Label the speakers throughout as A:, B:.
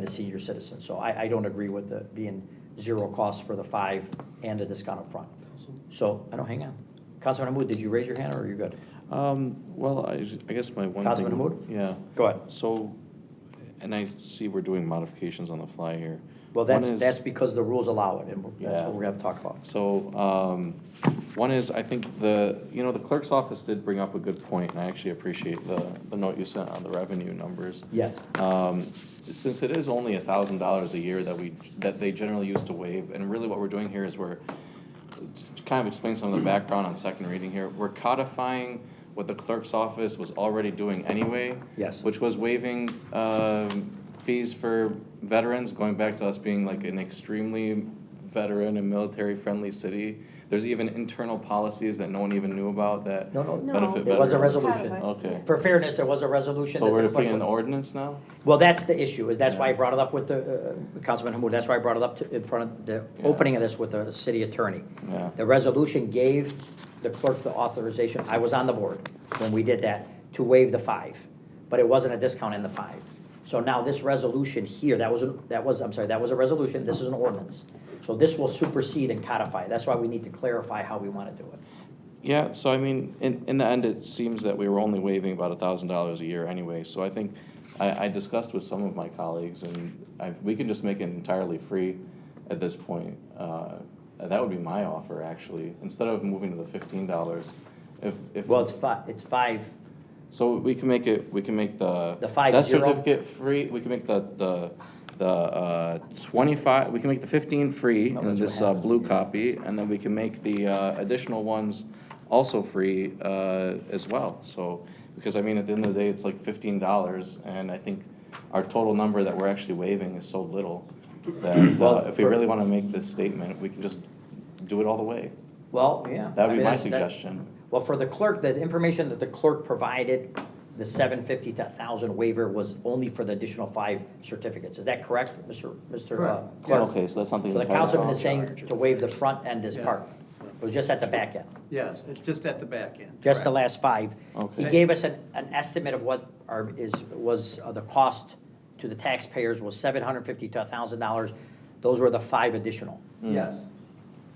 A: the senior citizens. So I, I don't agree with the, being zero cost for the five and the discount up front. So, I don't, hang on. Councilman Mahmoud, did you raise your hand or are you good?
B: Um, well, I, I guess my one thing.
A: Councilman Hamud?
B: Yeah.
A: Go ahead.
B: So, and I see we're doing modifications on the fly here.
A: Well,
B: One
A: that's,
B: is-
A: that's because the rules allow it, and that's
B: Yeah.
A: what we're gonna have to talk about.
B: So, um, one is, I think the, you know, the clerk's office did bring up a good point, and I actually appreciate the, the note you sent on the revenue numbers.
A: Yes.
B: Um, since it is only a thousand dollars a year that we, that they generally use to waive, and really what we're doing here is we're, to kind of explain some of the background on second reading here, we're codifying what the clerk's office was already doing anyway.
A: Yes.
B: Which was waiving, um, fees for veterans, going back to us being like an extremely veteran and military-friendly city. There's even internal policies that no one even knew about that
A: No, no,
B: benefit
A: No.
B: veterans.
A: There was a resolution.
B: Okay,
A: For fairness, there was a resolution.
B: so
A: that
B: we're
A: the
B: putting in
A: clerk-
B: the ordinance now?
A: Well, that's the issue, is that's why I
B: Yeah.
A: brought it up with the, uh, Councilman Hamud, that's why I brought it up to- in front of the
B: Yeah.
A: opening of this with the city attorney.
B: Yeah.
A: The resolution gave the clerk the authorization, I was on the board when we did that, to waive the five, but it wasn't a discount in the five. So now this resolution here, that was, a- that was, I'm sorry, that was a resolution, this is an ordinance. So this will supersede and codify, that's why we need to clarify how we want to do it.
B: Yeah, so I mean, in, in the end, it seems that we were only waiving about a thousand dollars a year anyway, so I think, I, I discussed with some of my colleagues, and I, we can just make it entirely free at this point. Uh, that would be my offer, actually, instead of moving to the fifteen dollars, if, if.
A: Well, it's fi, it's five,
B: So we can make it, we can make the.
A: The five
B: That
A: zero?
B: certificate free, we can make the, the, the, uh, twenty-five, we can make the fifteen free
A: Oh,
B: in
A: that's
B: this,
A: what
B: uh,
A: happens.
B: blue copy, and then we can make the, uh, additional ones also free, uh, as well, so. Because I mean, at the end of the day, it's like fifteen dollars, and I think our total number that we're actually waiving is so little that,
A: Well,
B: uh, if we
A: for-
B: really wanna make this statement, we can just do it all the way.
A: well, yeah. I
B: That would
A: mean,
B: be my
A: that's- that-
B: suggestion.
A: Well, for the clerk, the information that the clerk provided, the seven fifty to thousand waiver was only for the additional five certificates. Is that correct, Mr. Mr. uh,
C: Correct.
A: Clerk?
B: Okay, so that's something.
A: So the
B: entirely-
A: councilman is
C: Charge.
A: saying to waive the front end as
C: Yeah.
A: part. It was just at the back end,
C: Yes, it's just at the back end.
A: just the last five. He
B: Okay.
A: gave us an, an estimate of what our, is, was uh, the cost to the taxpayers was seven hundred fifty to thousand dollars. Those were the five additional.
C: Yes.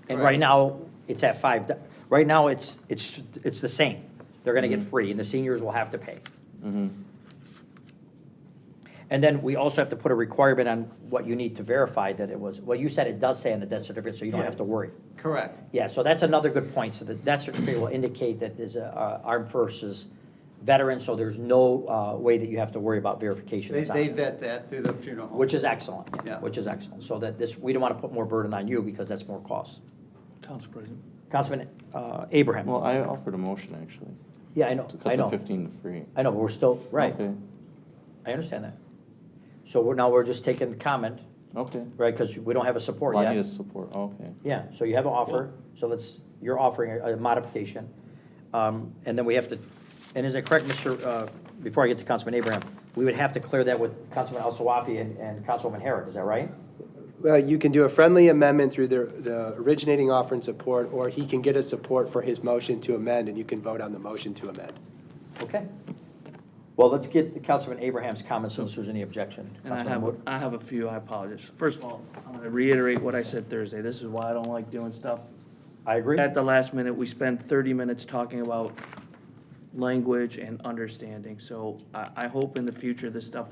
A: And
C: Correct.
A: right now, it's at five, do- right now, it's, it's, it's the same. They're gonna
C: Mm-hmm.
A: get free, and the seniors will have to pay.
B: Mm-hmm.
A: And then we also have to put a requirement on what you need to verify that it was, well, you said it does say on the death certificate, so you don't
C: Yeah.
A: have to worry.
C: Correct.
A: Yeah, so that's another good point, so the death certificate will indicate that there's a, uh, armed versus veteran, so there's no, uh, way that you have to worry about verification.
C: They,
A: It's on
C: they
A: there.
C: vet that through the funeral home.
A: Which is excellent,
C: Yeah.
A: which is excellent, so that this, we don't wanna put more burden on you, because that's more cost.
D: Council President.
A: Councilman uh, Abraham.
B: Well, I offered a motion, actually.
A: Yeah, I know,
B: To
A: I
B: cut the
A: know.
B: fifteen to free.
A: I know, but we're still, right,
B: Okay,
A: I understand that. So we're, now we're just taking comment,
B: okay.
A: right, because we don't have a support
B: Well, I need
A: yet.
B: his support, okay.
A: Yeah, so you have an offer, so let's, you're offering a a modification. Um, And then we have to, and is it correct, Mr., uh, before I get to Councilman Abraham, we would have to clear that with Councilman Al-Sawafi and- and Councilman Herrick, is that right?
E: Well, uh, you can do a friendly amendment through the, the originating offer and support, or he can get a support for his motion to amend, and you can vote on the motion to amend.
A: Okay. Well, let's get Councilman Abraham's comments unless there's any objection.
D: And I
A: Councilman
D: have,
A: Wood?
D: I have a few, I apologize. First of all, I'm going to reiterate what I said Thursday. This is why I don't like doing stuff.
A: I agree.
D: At the last minute, we spend 30 minutes talking about language and understanding. So I, I hope in the future this stuff,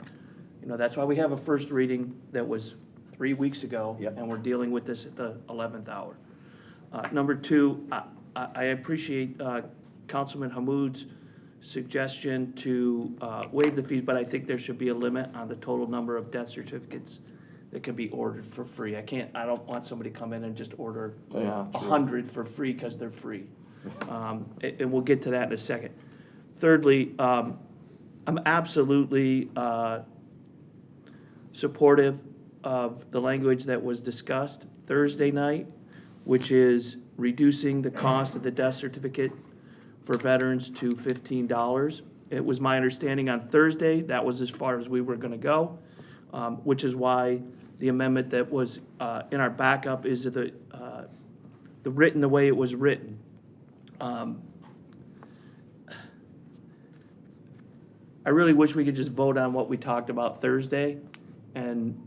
D: you know, that's why we have a first reading that was three weeks ago.
A: Yep.
D: And we're dealing with this at the 11th hour. Uh, Number two, I, I I appreciate uh, Councilman Hamud's suggestion to uh, waive the fees, but I think there should be a limit on the total number of death certificates that can be ordered for free. I can't, I don't want somebody to come in and just order
B: Yeah,
D: a
B: true.
D: hundred for free because they're free. Um, a- And we'll get to that in a second. Thirdly, um, I'm absolutely uh, supportive of the language that was discussed Thursday night, which is reducing the cost of the death certificate for veterans to fifteen dollars. It was my understanding on Thursday, that was as far as we were gonna go, um, which is why the amendment that was, uh, in our backup is the, uh, the written, the way it was written. Um, I really wish we could just vote on what we talked about Thursday and